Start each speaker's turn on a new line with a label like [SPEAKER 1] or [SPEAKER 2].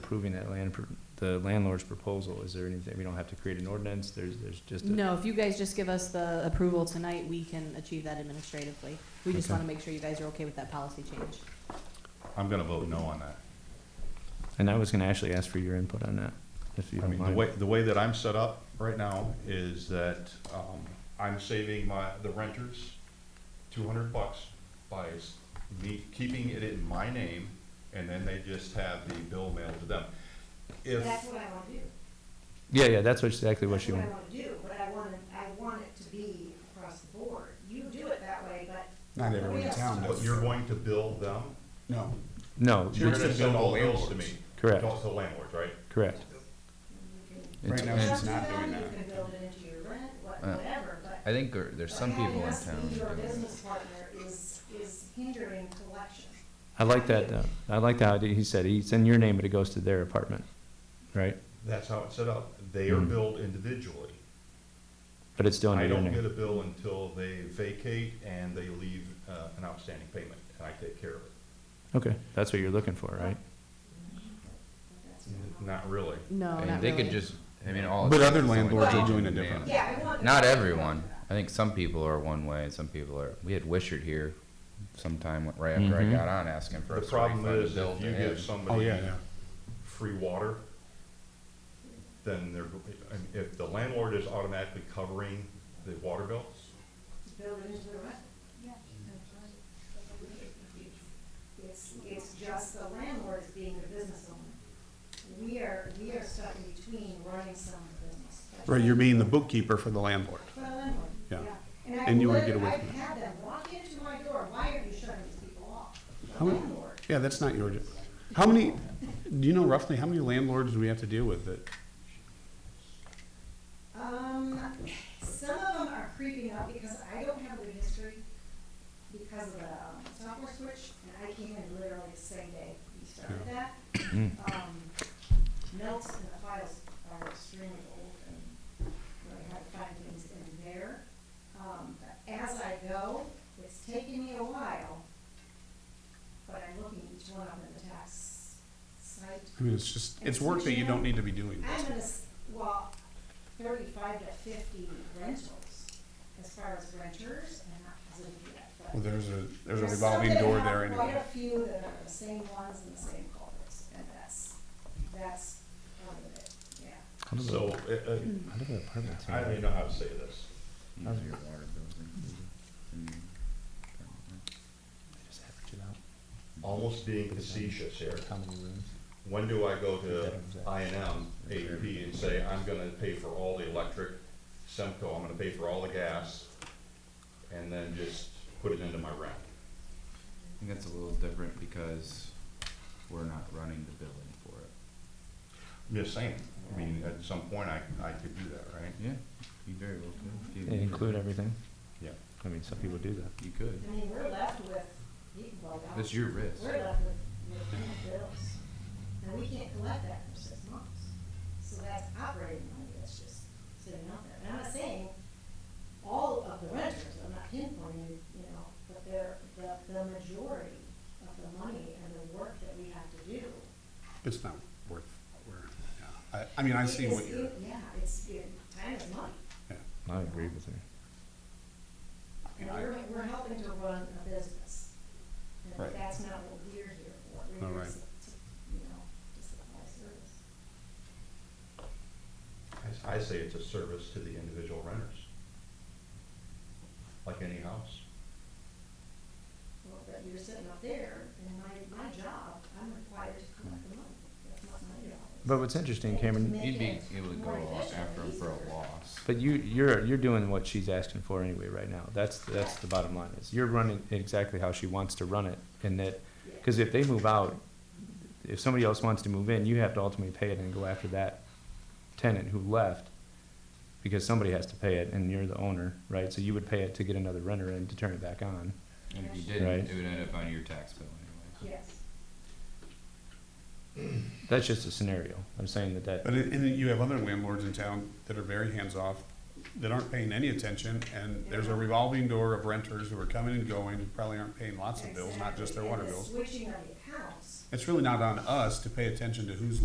[SPEAKER 1] approving that land, pr- the landlord's proposal, is there anything, we don't have to create an ordinance, there's, there's just a.
[SPEAKER 2] No, if you guys just give us the approval tonight, we can achieve that administratively. We just
[SPEAKER 1] Okay.
[SPEAKER 2] want to make sure you guys are okay with that policy change.
[SPEAKER 3] I'm gonna vote no on that.
[SPEAKER 1] And I was gonna actually ask for your input on that, if you
[SPEAKER 3] I
[SPEAKER 1] don't
[SPEAKER 3] mean, the way,
[SPEAKER 1] mind.
[SPEAKER 3] the way that I'm set up right now is that, um, I'm saving my, the renters two hundred bucks by s- me keeping it in my name, and then they just have the bill mailed to them. If,
[SPEAKER 4] That's what I want to do.
[SPEAKER 1] Yeah, yeah, that's what- exactly what she
[SPEAKER 4] That's
[SPEAKER 1] wanted.
[SPEAKER 4] what I want to do, but I want, it- I want it to be across the board. You do it that way, but
[SPEAKER 5] Not everyone in town
[SPEAKER 3] but
[SPEAKER 5] does.
[SPEAKER 3] you're going to bill them,
[SPEAKER 5] No,
[SPEAKER 1] No,
[SPEAKER 3] you're
[SPEAKER 5] It's
[SPEAKER 3] gonna
[SPEAKER 5] to
[SPEAKER 3] send
[SPEAKER 5] bill
[SPEAKER 3] all
[SPEAKER 5] the
[SPEAKER 3] bills to me.
[SPEAKER 5] landlords.
[SPEAKER 1] Correct.
[SPEAKER 3] To the landlords, right?
[SPEAKER 1] correct.
[SPEAKER 5] right now
[SPEAKER 4] Up
[SPEAKER 5] she's
[SPEAKER 4] to
[SPEAKER 5] not
[SPEAKER 4] them,
[SPEAKER 5] doing
[SPEAKER 4] you
[SPEAKER 5] that.
[SPEAKER 4] can build it into your rent, what-
[SPEAKER 6] Uh,
[SPEAKER 4] whatever, but.
[SPEAKER 6] I think there- there's some
[SPEAKER 4] but
[SPEAKER 6] people
[SPEAKER 4] having
[SPEAKER 6] in
[SPEAKER 4] us be
[SPEAKER 6] town who
[SPEAKER 4] Your
[SPEAKER 6] do it.
[SPEAKER 4] business partner is, is hindering collection.
[SPEAKER 1] I like that, uh, I like that, idea. he said, it's in your name, but it goes to their apartment, right?
[SPEAKER 3] That's how it's set up. They are
[SPEAKER 1] Mhm.
[SPEAKER 3] billed individually.
[SPEAKER 1] But it's still
[SPEAKER 3] I
[SPEAKER 1] in your
[SPEAKER 3] don't get a
[SPEAKER 1] name.
[SPEAKER 3] bill until they vacate and they leave, uh, an outstanding payment, and I take care of it.
[SPEAKER 1] Okay, that's what you're looking for, right?
[SPEAKER 4] That's-
[SPEAKER 3] Oh, Not really.
[SPEAKER 2] No,
[SPEAKER 6] I mean, they could just, I mean, all. it
[SPEAKER 5] But
[SPEAKER 6] takes
[SPEAKER 5] other
[SPEAKER 6] is someone
[SPEAKER 5] landlords
[SPEAKER 4] are
[SPEAKER 6] changing
[SPEAKER 5] doing
[SPEAKER 6] the
[SPEAKER 5] it
[SPEAKER 6] name.
[SPEAKER 5] differently.
[SPEAKER 4] Yeah, I want.
[SPEAKER 6] Not everyone. I think some people are one way and some people are, we had Wishart here sometime right after I
[SPEAKER 1] Mhm.
[SPEAKER 6] got on asking for
[SPEAKER 3] The
[SPEAKER 6] us to refund
[SPEAKER 3] problem
[SPEAKER 6] the
[SPEAKER 3] is,
[SPEAKER 6] bill
[SPEAKER 3] if
[SPEAKER 6] to
[SPEAKER 3] you give
[SPEAKER 6] him.
[SPEAKER 5] Oh,
[SPEAKER 3] somebody
[SPEAKER 5] yeah, yeah.
[SPEAKER 3] free water, then they're, I mean, if the landlord is automatically covering the water bill,
[SPEAKER 4] Build it into the rent. Yeah. It's, it's just the landlord is being the business owner. We are, we are stuck in between running someone's business. That's
[SPEAKER 5] Right,
[SPEAKER 4] it.
[SPEAKER 5] you're being the bookkeeper for the landlord.
[SPEAKER 4] For the landlord, yeah.
[SPEAKER 5] Yeah.
[SPEAKER 4] And
[SPEAKER 5] And
[SPEAKER 4] I've
[SPEAKER 5] you wanna get
[SPEAKER 4] literally,
[SPEAKER 5] away
[SPEAKER 4] I've
[SPEAKER 5] from that.
[SPEAKER 4] had them walk into my door, why are you shutting these people off? The
[SPEAKER 5] How many-
[SPEAKER 4] landlord.
[SPEAKER 5] Yeah, that's not your, job. how many, do you know roughly how many landlords do we have to deal with that?
[SPEAKER 4] Um, some of them are creeping up because I don't have a good history because of the um, software switch, and I came in literally the same day we started that. Um, notes and the files are extremely old and really hard to find things in there. Um, but as I go, it's taking me a while, but I'm looking each one up in the tax site.
[SPEAKER 5] I mean, it's just, it's work that you don't need to be doing.
[SPEAKER 4] I'm gonna, s- well, thirty-five to fifty rentals, as far as renters, I'm not positive yet, but.
[SPEAKER 5] Well, there's a, there's a
[SPEAKER 4] There's
[SPEAKER 5] revolving
[SPEAKER 4] still
[SPEAKER 5] door
[SPEAKER 4] gonna
[SPEAKER 5] there
[SPEAKER 4] have
[SPEAKER 5] anyway.
[SPEAKER 4] Quite a few that are the same ones and the same culprits, and that's, that's part of it, yeah.
[SPEAKER 1] How do the-
[SPEAKER 3] so, uh, uh,
[SPEAKER 1] how do the apartments
[SPEAKER 3] I don't
[SPEAKER 1] handle
[SPEAKER 3] even
[SPEAKER 1] it?
[SPEAKER 3] know how to say this.
[SPEAKER 6] How's your water Mm-hmm. bill?
[SPEAKER 1] Mm-hmm. They just average it out.
[SPEAKER 3] Almost being facetious here.
[SPEAKER 1] How many rooms?
[SPEAKER 3] When do I go to I and M, AEP, and say, I'm gonna pay for all the electric, Semco, I'm gonna pay for all the gas, and then just put it into my rent?
[SPEAKER 6] I think that's a little different because we're not running the billing for it.
[SPEAKER 3] I'm just saying, I mean, at some point, I, I could do that, right?
[SPEAKER 6] Yeah, you very well could. if you-
[SPEAKER 1] Include everything?
[SPEAKER 3] Yeah.
[SPEAKER 1] I mean, some people do that.
[SPEAKER 6] You could.
[SPEAKER 4] I mean, we're left with, you- well, now,
[SPEAKER 6] That's your risk.
[SPEAKER 4] we're left with, with no bills, and we can't collect that for six months. So that's operating money, that's just sitting out there. And I'm not saying all of the renters, I'm not pinpointing, you know, but they're, the, the majority of the money and the work that we have to do.
[SPEAKER 5] It's not worth, we yeah. I, I mean, I see
[SPEAKER 4] is-
[SPEAKER 5] what you're,
[SPEAKER 4] it- Yeah, it's, it, time is money.
[SPEAKER 5] yeah.
[SPEAKER 1] I agree with her.
[SPEAKER 4] And
[SPEAKER 5] Yeah, I-
[SPEAKER 4] we're, we're helping to run a business.
[SPEAKER 5] Right.
[SPEAKER 4] And that's not what we're here for. We're
[SPEAKER 5] No,
[SPEAKER 4] here
[SPEAKER 5] right.
[SPEAKER 4] to, to, you know, to supply service.
[SPEAKER 3] I say it's a service to the individual renters. Like any house.
[SPEAKER 4] Well, but you're sitting up there, and my, my job, I'm required to collect the money. That's not my job.
[SPEAKER 1] But what's interesting, Cameron,
[SPEAKER 4] Make
[SPEAKER 6] You'd be
[SPEAKER 4] it
[SPEAKER 6] able to go
[SPEAKER 4] more
[SPEAKER 6] off
[SPEAKER 4] efficient,
[SPEAKER 6] after him for
[SPEAKER 4] easier.
[SPEAKER 6] a loss.
[SPEAKER 1] But you, you're, you're doing what she's asking for anyway right now. That's, that's the bottom line is you're running exactly how she wants to run it. And that, because if they move out, if somebody else wants to move in, you have to ultimately pay it and go after that tenant who left. Because somebody has to pay it and you're the owner, right? So you would pay it to get another renter in to turn it back on.
[SPEAKER 6] And if you
[SPEAKER 1] Right.
[SPEAKER 6] didn't, it would end up on your tax bill anyway.
[SPEAKER 4] Yes.
[SPEAKER 1] That's just a scenario. I'm saying that that,
[SPEAKER 5] But it- and you have other landlords in town that are very hands-off, that aren't paying any attention, and there's a revolving door of renters who are coming and going, who probably aren't paying lots of bills, not just their
[SPEAKER 4] Exactly.
[SPEAKER 5] water
[SPEAKER 4] And the
[SPEAKER 5] bills.
[SPEAKER 4] Switching of the accounts.
[SPEAKER 5] It's really not on us to pay attention to who's